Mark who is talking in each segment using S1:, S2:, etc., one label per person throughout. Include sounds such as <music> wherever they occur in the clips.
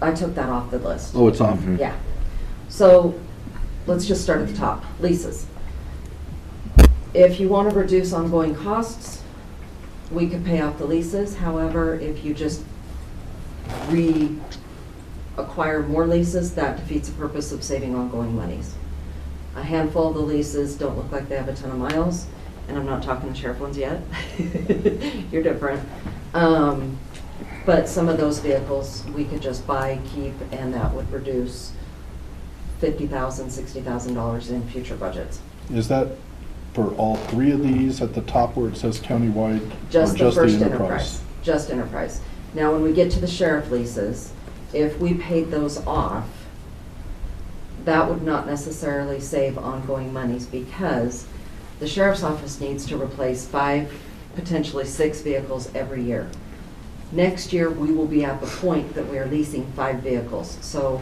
S1: I took that off the list.
S2: Oh, it's off.
S1: Yeah. So let's just start at the top. Leases. If you want to reduce ongoing costs, we could pay off the leases. However, if you just reacquire more leases, that defeats the purpose of saving ongoing monies. A handful of the leases don't look like they have a ton of miles, and I'm not talking the sheriff ones yet. <laughs> You're different. Um, but some of those vehicles, we could just buy, keep, and that would reduce $50,000, $60,000 in future budgets.
S2: Is that for all three of these at the top where it says countywide? or
S1: Just the first enterprise. Just enterprise. Now, when we get to the sheriff leases, if we paid those off, that would not necessarily save ongoing monies because the sheriff's office needs to replace five, potentially six vehicles every year. Next year, we will be at the point that we are leasing five vehicles. So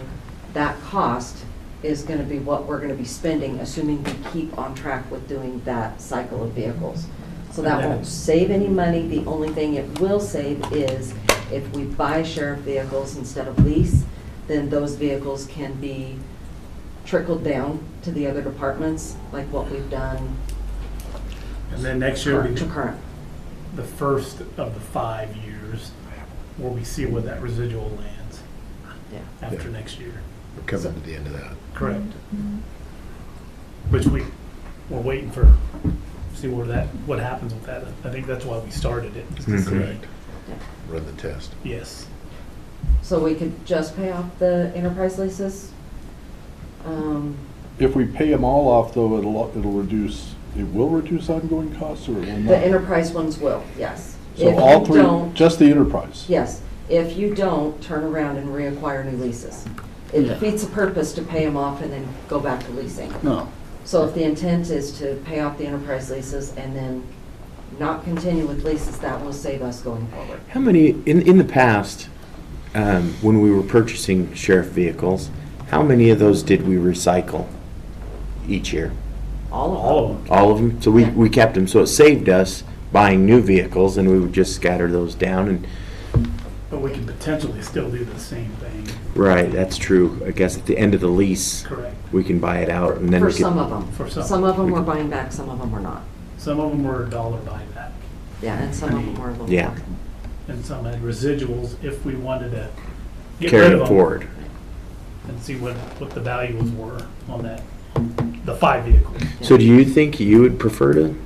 S1: that cost is going to be what we're going to be spending, assuming we keep on track with doing that cycle of vehicles. So that won't save any money. The only thing it will save is if we buy sheriff vehicles instead of lease, then those vehicles can be trickled down to the other departments, like what we've done
S3: And then next year, will
S1: current
S3: be
S1: to current.
S3: the first of the five years where we see where that residual lands
S1: Yeah.
S3: after next year.
S4: We're coming to the end of that.
S3: Correct. Which we, we're waiting for, see where that, what happens with that. I think that's why we started it. is to see-
S4: Correct. Run the test.
S3: Yes.
S1: So we could just pay off the enterprise leases. Um,
S2: If we pay them all off, though, it'll, it'll reduce, it will reduce ongoing costs or it will
S1: The
S2: not?
S1: enterprise ones will, yes.
S2: So
S1: If
S2: all
S1: you
S2: three,
S1: don't-
S2: just the enterprise?
S1: Yes, if you don't, turn around and reacquire new leases. It defeats the purpose to pay them off and then go back to leasing.
S2: No.
S1: So if the intent is to pay off the enterprise leases and then not continue with leases, that will save us going forward.
S5: How many, in, in the past, um, when we were purchasing sheriff vehicles, how many of those did we recycle each year?
S1: All
S3: All
S1: of
S3: of them.
S5: All of them? So we,
S1: Yeah.
S5: we kept them, so it saved us buying new vehicles and we would just scatter those down and,
S3: But we can potentially still do the same thing.
S5: right, that's true. I guess at the end of the lease,
S3: Correct.
S5: we can buy it out and
S1: them,
S5: then
S1: for
S5: we
S1: some
S5: could.
S1: of them.
S3: For some.
S1: Some of them
S5: We
S1: we're
S5: could-
S1: buying back, some of them we're not.
S3: Some of them were a dollar buyback
S1: Yeah, and some of them were a little.
S5: Yeah.
S1: more.
S3: and some had residuals if we wanted to get rid
S5: Carry
S3: of
S5: it
S3: them
S5: forward.
S3: and see what, what the values were on that, the five vehicles.
S5: So do you think you would prefer to,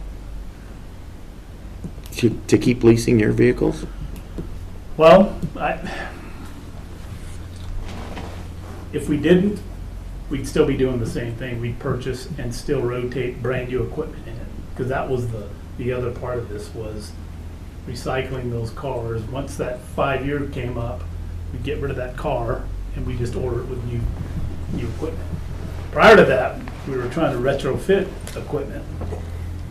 S5: to, to keep leasing your vehicles?
S3: Well, I, if we didn't, we'd still be doing the same thing. We'd purchase and still rotate brand-new equipment in it. Because that was the, the other part of this was recycling those cars. Once that five-year came up, we'd get rid of that car and we just order it with new, new equipment. Prior to that, we were trying to retrofit equipment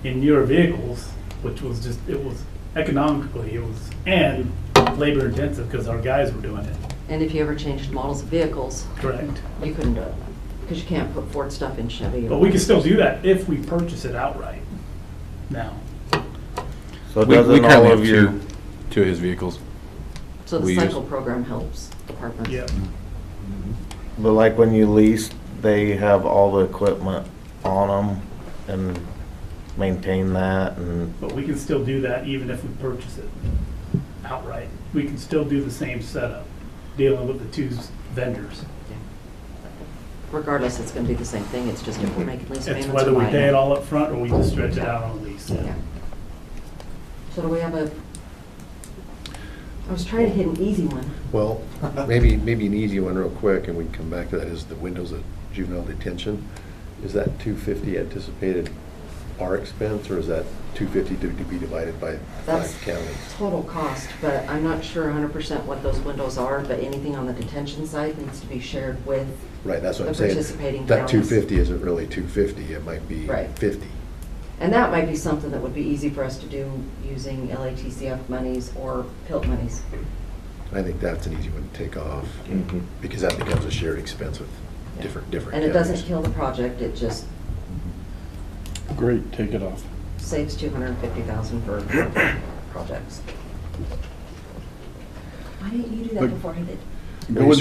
S3: in newer vehicles, which was just, it was economically, it was, and labor intensive because our guys were doing it.
S1: And if you ever changed models of vehicles,
S3: Correct.
S1: you couldn't do it, because you can't put Ford stuff in Chevy.
S3: But we can still do that if we purchase it outright now.
S6: So
S7: We, we
S6: doesn't all
S7: currently have
S6: of your,
S7: two, two of his vehicles.
S1: So the
S7: we use-
S1: cycle program helps departments.
S3: Yep.
S6: but like when you lease, they have all the equipment on them and maintain that and
S3: But we can still do that even if we purchase it outright. We can still do the same setup, dealing with the two vendors.
S1: Regardless, it's gonna be the same thing, it's just if we're making lease
S3: It's
S1: payments or
S3: whether we
S1: buying
S3: pay
S1: it.
S3: it all up front or we just stretch it out on lease.
S1: Yeah. So do we have a, I was trying to hit an easy one.
S4: Well, maybe, maybe an easy one real quick, and we can come back to that, is the windows at juvenile detention. Is that 250 anticipated our expense, or is that 250 to to be divided by
S1: That's-
S4: five counties?
S1: Total cost, but I'm not sure hundred percent what those windows are, but anything on the detention side needs to be shared with,
S4: Right, that's what I'm
S1: The
S4: saying.
S1: participating
S4: That
S1: counties.
S4: 250 isn't really 250, it might be
S1: Right.
S4: 50.
S1: and that might be something that would be easy for us to do using LATCF monies or PILT monies.
S4: I think that's an easy one to take off,
S6: Mm-hmm.
S5: Mhm.
S4: because that becomes a shared expense with
S1: Yeah.
S4: different, different
S1: And
S4: counties.
S1: it doesn't kill the project, it just
S2: Great, take it off.
S1: saves two hundred and fifty thousand
S4: <coughs>
S1: for projects. Why didn't you do that
S2: But-
S1: before I did?
S4: Maybe
S2: It would